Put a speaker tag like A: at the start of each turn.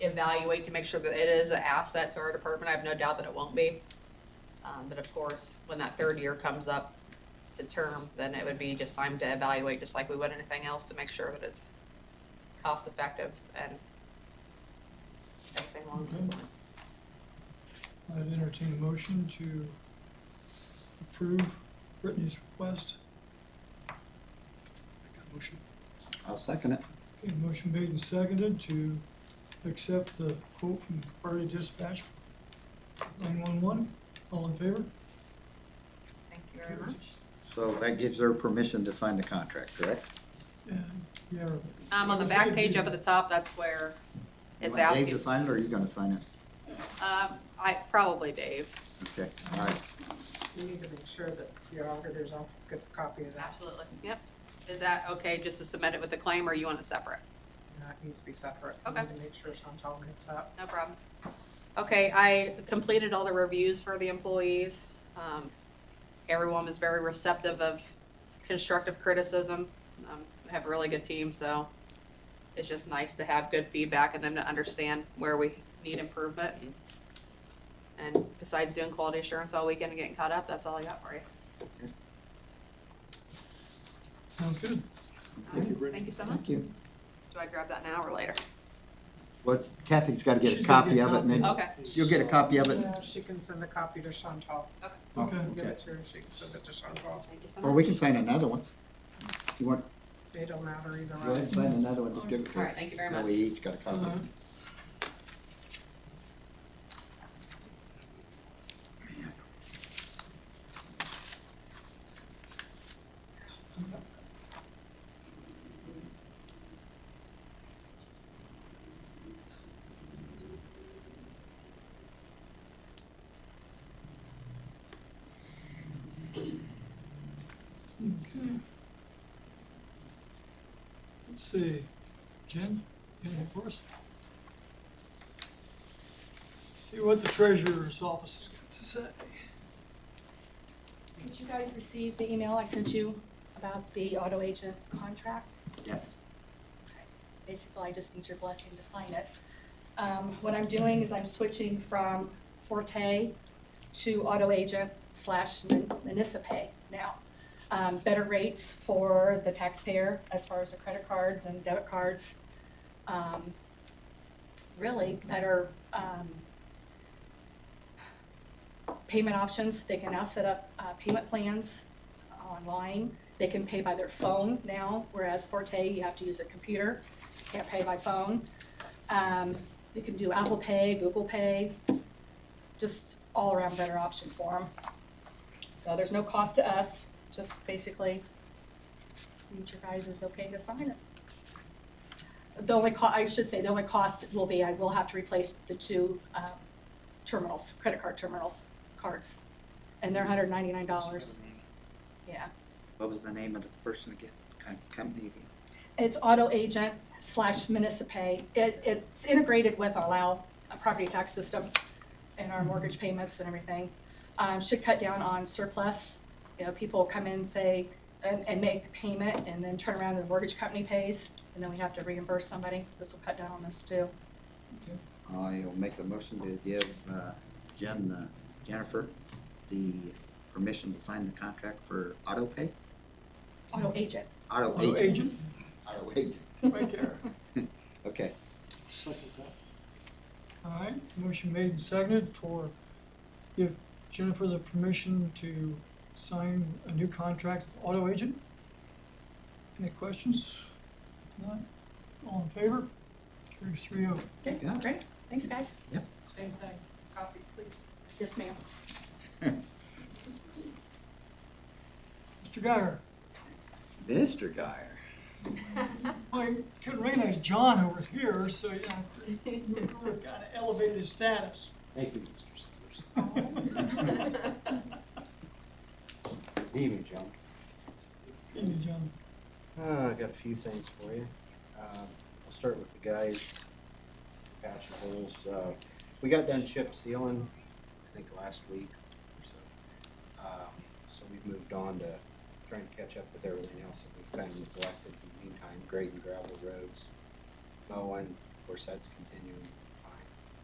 A: evaluate to make sure that it is an asset to our department. I have no doubt that it won't be. Um, but of course, when that third year comes up to term, then it would be just time to evaluate, just like we would anything else, to make sure that it's cost effective and everything along those lines.
B: I'd entertain a motion to approve Brittany's request.
C: Make that motion.
D: I'll second it.
B: Okay, motion made and seconded to accept the quote from Priority Dispatch nine-one-one. All in favor?
A: Thank you very much.
D: So that gives her permission to sign the contract, correct?
B: And, yeah,
A: Um, on the back page up at the top, that's where it's
D: You want Dave
A: asking.
D: to sign it, or are you gonna sign it?
A: Um, I, probably Dave.
D: Okay, all right.
E: You need to make sure that your auditor's office gets a copy of that,
A: Absolutely. Yep. Is that okay just to submit it with the claim or you want it separate?
E: and that needs to be separate.
A: Okay.
E: You need to make sure Chantal gets that.
A: No problem. Okay, I completed all the reviews for the employees. Um, everyone was very receptive of constructive criticism. Um, I have a really good team, so it's just nice to have good feedback and them to understand where we need improvement. And besides doing quality assurance all weekend and getting caught up, that's all I got for you.
B: sounds good.
C: Thank you, Brittany.
A: Thank you so much.
D: Thank you.
A: Do I grab that now or later?
D: Well, Kathy's gotta get a
B: She's gotta
D: copy
B: get a
D: of it, and then
A: Okay,
D: she'll get a copy of it.
E: Yeah, she can send a copy to Chantal.
D: Oh,
B: Okay.
E: Give
D: okay.
E: it to her, she can send it to Chantal.
A: thank you so much.
D: Or we can sign another one. You want,
E: It don't matter either
D: go ahead
E: way.
D: and sign another one, just give it to her.
A: All right, thank you very
D: That
A: much.
D: way each got a copy.
B: Alright. Let's see, Jen, anything for us? See what the treasurer's office is got to say.
F: Did you guys receive the email I sent you about the auto agent contract?
D: Yes.
F: Basically, I just need your blessing to sign it. Um, what I'm doing is I'm switching from Forte to auto agent slash mun- municipay now. Um, better rates for the taxpayer as far as the credit cards and debit cards. Um, really better, um, payment options. They can now set up, uh, payment plans online. They can pay by their phone now, whereas Forte, you have to use a computer, can't pay by phone. Um, they can do Apple Pay, Google Pay, just all around better option for them. So there's no cost to us, just basically, need your guys is okay to sign it. The only co, I should say, the only cost will be, I will have to replace the two, uh, terminals, credit card terminals, cards, and they're hundred ninety-nine dollars, yeah.
D: What was the name of the person again, Com- company again?
F: It's auto agent slash municipay. It, it's integrated with our Lao uh, property tax system and our mortgage payments and everything. Um, should cut down on surplus. You know, people come in, say, and, and make payment and then turn around and the mortgage company pays and then we have to reimburse somebody. This will cut down on this too.
D: I'll make the motion to give uh, Jen, uh, Jennifer, the permission to sign the contract for auto pay,
F: Auto agent.
D: auto
B: Auto
D: agent.
B: agent,
D: Auto agent,
B: right there.
D: okay.
C: Second that.
B: All right, motion made and seconded for give Jennifer the permission to sign a new contract with auto agent. Any questions? If Not, all in favor? Carries three oh.
F: Okay,
D: Yeah.
F: great. Thanks, guys.
E: Same thing, copy, please.
F: Yes, ma'am.
B: Mr. Guyer,
D: Mr. Guyer.
B: I couldn't recognize John over here, so yeah, we were kind of elevated status.
G: Thank you, Mr. Sellers. Good evening, John.
B: Thank you, John.
G: Uh, I got a few things for you. Um, I'll start with the guys patching holes. Uh, we got done chip sealing, I think, last week or so. Um, so we've moved on to trying to catch up with everything else that we've kind of neglected in the meantime, grading gravel roads, mowing, of course, that's continuing.